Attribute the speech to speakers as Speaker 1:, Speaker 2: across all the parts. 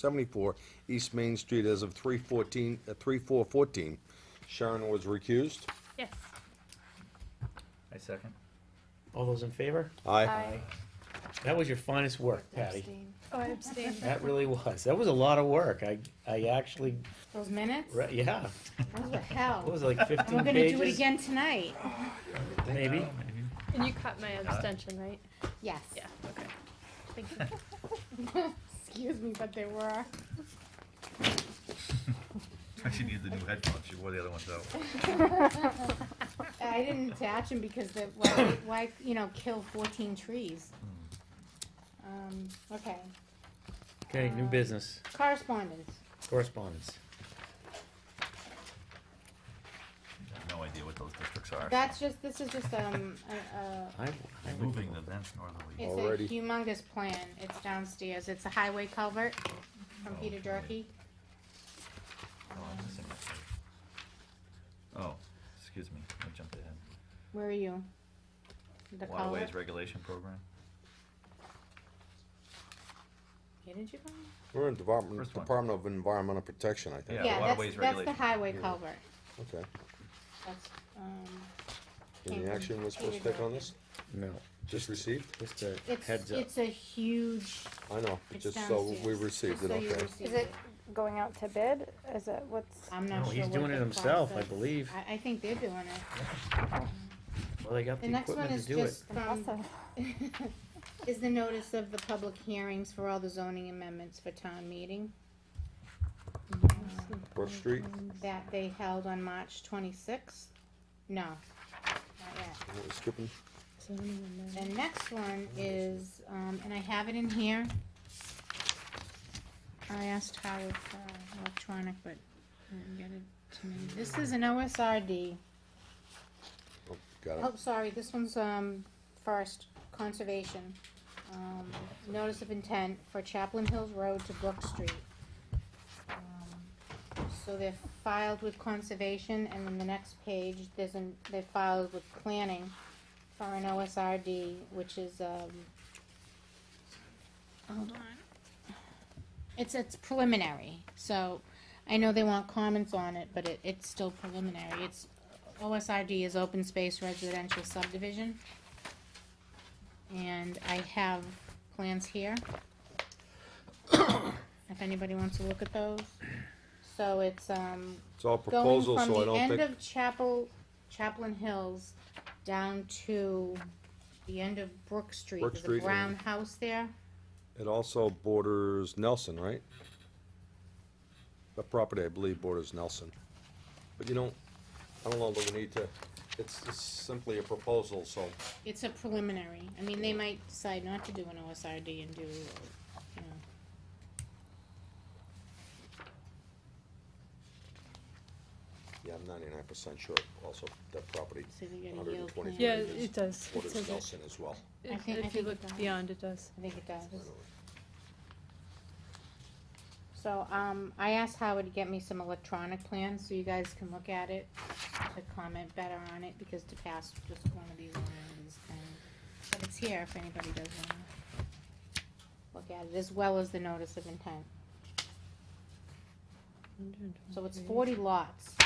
Speaker 1: seventy-four East Main Street as of three fourteen, uh, three four fourteen. Sharon was recused.
Speaker 2: Yes.
Speaker 3: I second.
Speaker 4: All those in favor?
Speaker 1: Aye.
Speaker 4: That was your finest work, Patty.
Speaker 2: Oh, I abstained.
Speaker 4: That really was. That was a lot of work. I, I actually,
Speaker 5: Those minutes?
Speaker 4: re- yeah,
Speaker 5: Those were
Speaker 4: what
Speaker 5: hell.
Speaker 4: was it, like fifteen
Speaker 5: And we're
Speaker 4: pages?
Speaker 5: gonna do it again tonight.
Speaker 4: Maybe.
Speaker 2: And you cut my abstention, right?
Speaker 5: Yes.
Speaker 2: Yeah, okay. Thank you.
Speaker 5: Excuse me, but they were.
Speaker 3: She needs the new headphones, she wore the other ones out.
Speaker 5: I didn't attach them because the, why, why, you know, kill fourteen trees? Um, okay,
Speaker 4: Okay, new business,
Speaker 5: correspondence.
Speaker 4: correspondence.
Speaker 3: I have No idea what those districts are.
Speaker 5: That's just, this is just, um, a, a,
Speaker 4: I, I
Speaker 3: They're
Speaker 4: would-
Speaker 3: Moving the vents northerly.
Speaker 5: it's
Speaker 1: Alrighty.
Speaker 5: a humongous plan. It's downstairs. It's a highway culvert from
Speaker 3: Oh,
Speaker 5: Peter
Speaker 3: okay.
Speaker 5: Durkey.
Speaker 3: Oh, I'm missing that page. Oh, excuse me, I jumped ahead.
Speaker 5: Where are you? The culvert?
Speaker 3: Waterways Regulation Program,
Speaker 5: Where did you go?
Speaker 1: We're in Department,
Speaker 3: First one.
Speaker 1: Department of Environmental Protection, I think.
Speaker 3: Yeah, the
Speaker 5: Yeah,
Speaker 3: waterways
Speaker 5: that's, that's the
Speaker 3: regulation.
Speaker 5: highway culvert.
Speaker 1: Okay.
Speaker 5: That's, um,
Speaker 1: Any action we're supposed to take on this?
Speaker 4: No,
Speaker 1: Just received?
Speaker 4: just a
Speaker 5: it's,
Speaker 4: heads up.
Speaker 5: it's a huge,
Speaker 1: I know,
Speaker 5: It's
Speaker 1: just so we
Speaker 5: downstairs.
Speaker 1: received
Speaker 5: Just
Speaker 1: it,
Speaker 5: so you
Speaker 1: okay.
Speaker 6: Is
Speaker 5: received
Speaker 6: it going out to bid? Is it, what's,
Speaker 5: I'm
Speaker 4: No,
Speaker 5: not sure
Speaker 4: he's
Speaker 5: what
Speaker 4: doing
Speaker 5: the
Speaker 4: it himself, I
Speaker 5: process-
Speaker 4: believe.
Speaker 5: I, I think they're doing it.
Speaker 4: Well, they got
Speaker 5: The
Speaker 4: the
Speaker 5: next one
Speaker 4: equipment
Speaker 5: is
Speaker 4: to do it.
Speaker 5: just
Speaker 2: Um,
Speaker 5: from, is the notice of the public hearings for all the zoning amendments for town meeting. Um,
Speaker 1: Brook Street?
Speaker 5: That they held on March twenty-sixth? No, not yet.
Speaker 1: What we're Skipping?
Speaker 5: The next one is, um, and I have it in here. I asked Howard for electronic, but I didn't get it to me. This is an OSRD.
Speaker 1: Oh, Got
Speaker 5: Oh,
Speaker 1: it.
Speaker 5: sorry, this one's, um, first, conservation. Um, notice of intent for Chaplain Hills Road to Brook Street. Um, So they're filed with conservation, and then the next page, there's an, they're filed with planning for an OSRD, which is, um, hold on. It's, it's preliminary, so I know they want comments on it, but it, it's still preliminary. It's OSRD is open space residential subdivision. And I have plans here. If anybody wants to look at those. So it's, um,
Speaker 1: It's all
Speaker 5: going
Speaker 1: proposals,
Speaker 5: from
Speaker 1: so I
Speaker 5: the
Speaker 1: don't
Speaker 5: end
Speaker 1: think,
Speaker 5: of Chapel, Chaplain Hills down to the end of Brook Street.
Speaker 1: Brook
Speaker 5: There's a
Speaker 1: Street and-
Speaker 5: brown house there.
Speaker 1: it also borders Nelson, right? The property, I believe, borders Nelson. But you know, I don't know that we need to, it's, it's simply a proposal, so
Speaker 5: It's a preliminary. I mean, they might decide not to do an OSRD and do, you know,
Speaker 1: Yeah, I'm ninety-nine percent sure also that property
Speaker 5: so they're gonna yield.
Speaker 1: 123
Speaker 5: plan.
Speaker 2: Yeah,
Speaker 1: acres
Speaker 2: it does. It
Speaker 1: borders
Speaker 2: says it.
Speaker 1: Nelson as well.
Speaker 5: I
Speaker 2: If
Speaker 5: think- I
Speaker 2: if you
Speaker 5: think
Speaker 2: look
Speaker 5: it does.
Speaker 2: beyond, it does.
Speaker 5: I think it
Speaker 1: by
Speaker 5: does.
Speaker 1: the way.
Speaker 5: So, um, I asked Howard to get me some electronic plans, so you guys can look at it, to comment better on it, because to pass just one of these, one of these things. But it's here if anybody does wanna look at it, as well as the notice of intent. So it's forty lots.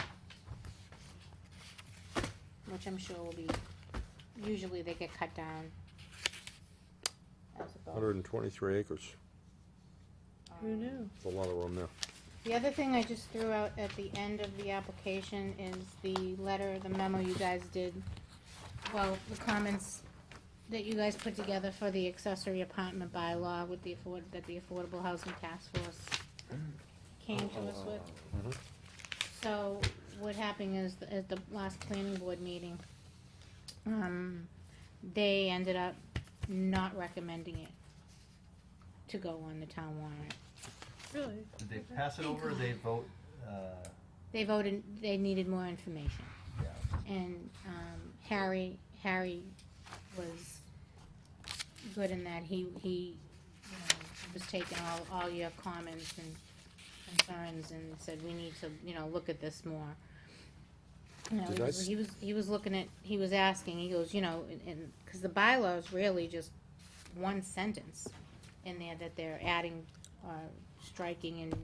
Speaker 5: Which I'm sure will be, usually they get cut down. as it goes.
Speaker 1: Hundred and twenty-three acres,
Speaker 2: Who
Speaker 5: Um,
Speaker 2: knew?
Speaker 1: there's a lot of room there.
Speaker 5: The other thing I just threw out at the end of the application is the letter, the memo you guys did, well, the comments that you guys put together for the accessory apartment bylaw with the afford, that the Affordable Housing Task Force came to us with.
Speaker 1: Mhm.
Speaker 5: So, what happened is, th- at the last planning board meeting, um, they ended up not recommending it to go on the town warrant.
Speaker 2: Really?
Speaker 3: Did they pass it over, or they vote, uh,
Speaker 5: They voted, they needed more information.
Speaker 3: yeah,
Speaker 5: and um, Harry Harry was good in that he he you know, was taking all, all your comments and concerns and said we need to you know look at this more. You know,
Speaker 1: Did
Speaker 5: he,
Speaker 1: I
Speaker 5: was,
Speaker 1: s-
Speaker 5: he was he was looking at he was asking he goes you know and because the bylaws really just one sentence in there that they're adding or striking and